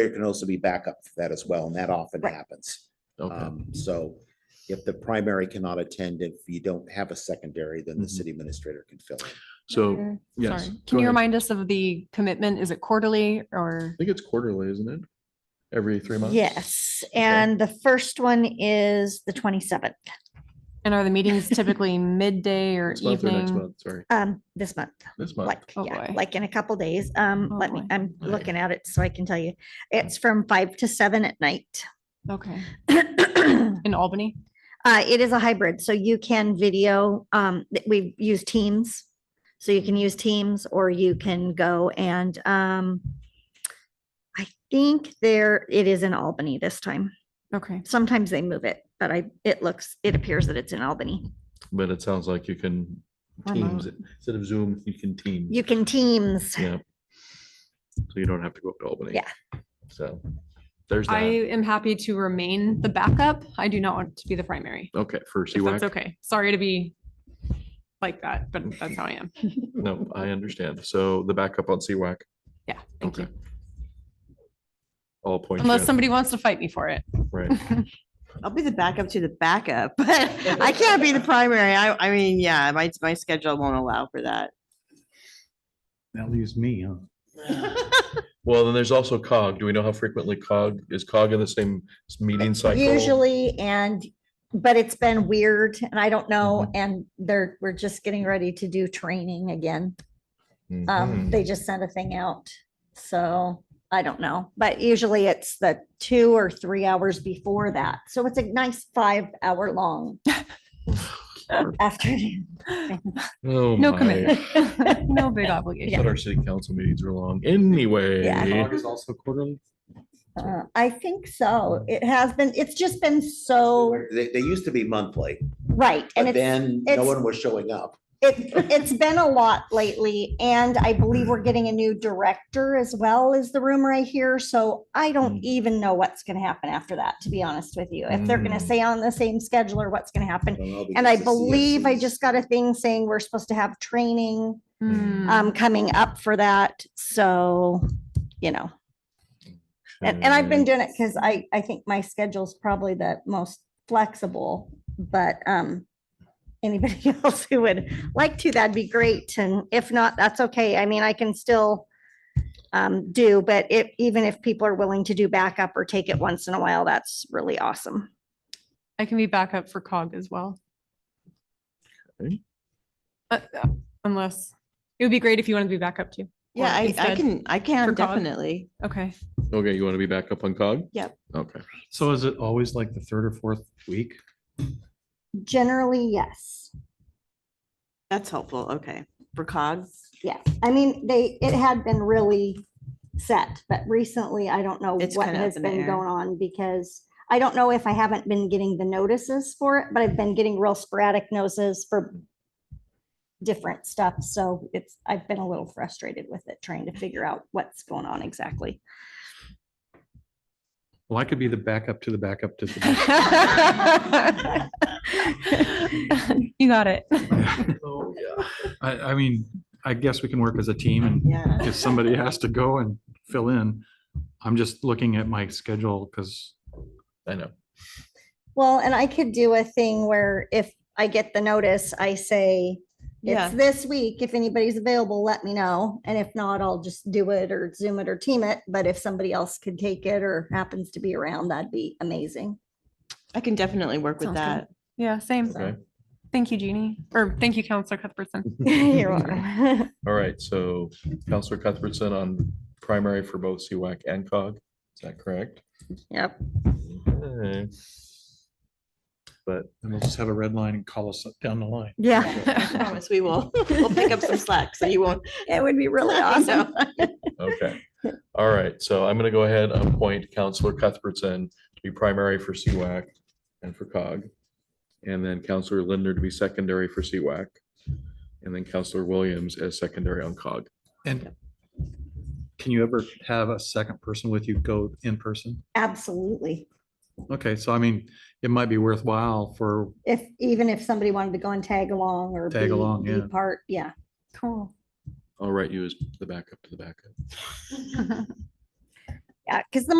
There can also be backup for that as well, and that often Right. happens. Okay, Um, so if the primary cannot attend, if you don't have a secondary, then the Mhm. city administrator can fill in. so, Sorry. yes. go Can you ahead. remind us of the commitment? Is it quarterly or? I think it's quarterly, isn't it? Every three months? Yes, and the first one is the twenty-seventh, And are the meetings typically midday or This month or next evening? month, sorry, um, this month, this month. like, Oh, yeah, boy. like in a couple days. Um, Oh, let me, boy. Mm. I'm Okay. looking at it so I can tell you. It's from five to seven at night. Okay, Uh, in Albany? it is a hybrid, so you can video, um, th- we use Teams. So you can Mm. use Teams or you can go and, um, I think there, it is in Albany this time. Okay, Sometimes they move it, but I, it looks, it appears that it's in Albany. But it sounds like you can Remote. Teams, it. instead of Zoom, you can Teams. You can Teams. Yeah. So you don't have to go up to Albany. Yeah. So there's I that. am happy to remain the backup. I do not want to be the primary. Okay, for If CWAC, that's okay. Sorry to be like that, but that's how I am. no, I understand. So the backup on CWAC, Yeah, thank okay. you. All points. Unless somebody wants to fight me for it. Right, I'll be the backup to the backup, but I can't be the primary. I, I mean, yeah, my, my schedule won't allow for that. That leaves me, huh? well, then there's also COG. Do we know how frequently COG, is COG in the same s- meeting cycle? Usually, and, but it's been weird and I don't know, and they're, we're just getting ready to do training again. Um, Mhm. they just sent a thing out, so I don't know, but usually it's the two or three hours before that. So it's a nice five hour long afternoon. Oh No my. commitment, no big I obligation. thought our city council meetings were long. Anyway. Yeah. is also quarterly. Uh, I think so. It has been, it's just been so, They, they used to be monthly, right, and but it's. then no it's- one was showing up. It, it's been a lot lately and I believe we're getting a new director as well is the rumor I hear. So I don't Mm. even know what's going to happen after that, to be honest with you. If they're going Mm. to stay on the same schedule or what's going to happen. don't know, And I because the believe I CFCs just got a thing saying we're supposed to have training Mm. Hmm. um coming up for that. So, you know, and, and I've been doing it because I, I think my schedule's probably the most flexible, but, um, anybody else who would like to, that'd be great. And if not, that's okay. I mean, I can still um, do, but if, even if people are willing to do backup or take it once in a while, that's really awesome. I can be backup for cog as well. Okay. Uh, uh, Unless, it would be great if you wanted to be backup too. Or Yeah, I, I instead- can, I can for cog. definitely. Okay. Okay, you want to be back up on COG? Yep. Okay. So is it always like the third or fourth week? Generally, yes. That's helpful. Okay. For cogs, Yes. I mean, they, it had been really set, but recently I don't know It's what kinda up has in the been air. going on because I don't know if I haven't been getting the notices for it, but I've been getting real sporadic notices for different stuff. So it's, I've been a little frustrated with it, trying to figure out what's going on exactly. Well, I could be the backup to the backup to the. back- You got it. Oh, yeah. I, I mean, I guess we can work as a team and yeah. if somebody has to go and fill in, I'm just looking at my schedule because I know. Well, and I could do a thing where if I get the notice, I say, Yeah. it's this week. If anybody's available, let me know. And if not, I'll just do it or Zoom it or team it. But if somebody else could take it or happens to be around, that'd be amazing. I can definitely work with Sounds good. that. Yeah, same. Okay. Thank you, Jeannie, or thank you, Counselor Cuthbertson. You're welcome. All right, so Counselor Cuthbertson on primary for both CWAC and COG, is that correct? Yep. Okay. But then we'll just have a red line and call us down the line. Yeah, I promise we will, we'll pick up some slack so you won't. it would be really I know. awesome. Okay, all right, so I'm gonna go ahead and appoint Counselor Cuthbertson to be primary for CWAC and for COG. And then Counselor Linder to be secondary for CWAC. And then Counselor Williams as secondary on COG. And can you ever have a second person with you go in person? Absolutely. Okay, so I mean, it might be worthwhile for, If, even if somebody wanted to go and tag along or Tag be- along, be yeah. Part, yeah. Cool. I'll write you as the backup to the backup. Yeah, because the